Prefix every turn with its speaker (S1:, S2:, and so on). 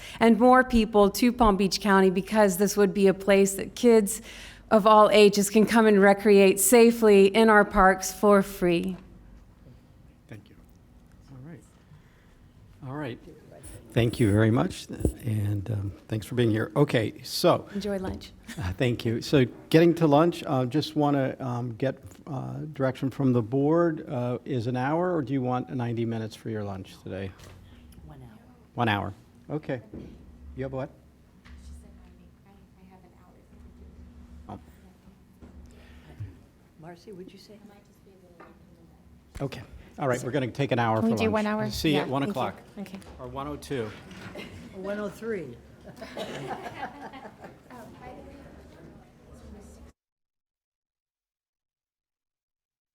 S1: and more people to Palm Beach County because this would be a place that kids of all ages can come and recreate safely in our parks for free.
S2: Thank you. All right. All right. Thank you very much, and um, thanks for being here. Okay, so,
S1: Enjoy lunch.
S2: uh, thank you. So getting to lunch, uh, just want to get uh, direction from the board. Uh, Is an hour, or do you want 90 minutes for your lunch today?
S3: One hour.
S2: One hour. Okay. You have what? Oh,
S3: Marcy, would you say?
S2: Okay. All right, we're going to take an hour for
S4: Can we
S2: lunch.
S4: do one hour?
S2: See you
S4: Yeah,
S2: at 1 oh
S4: thank you.
S2: o'clock,
S4: Okay.
S2: or 1:02.
S3: 103.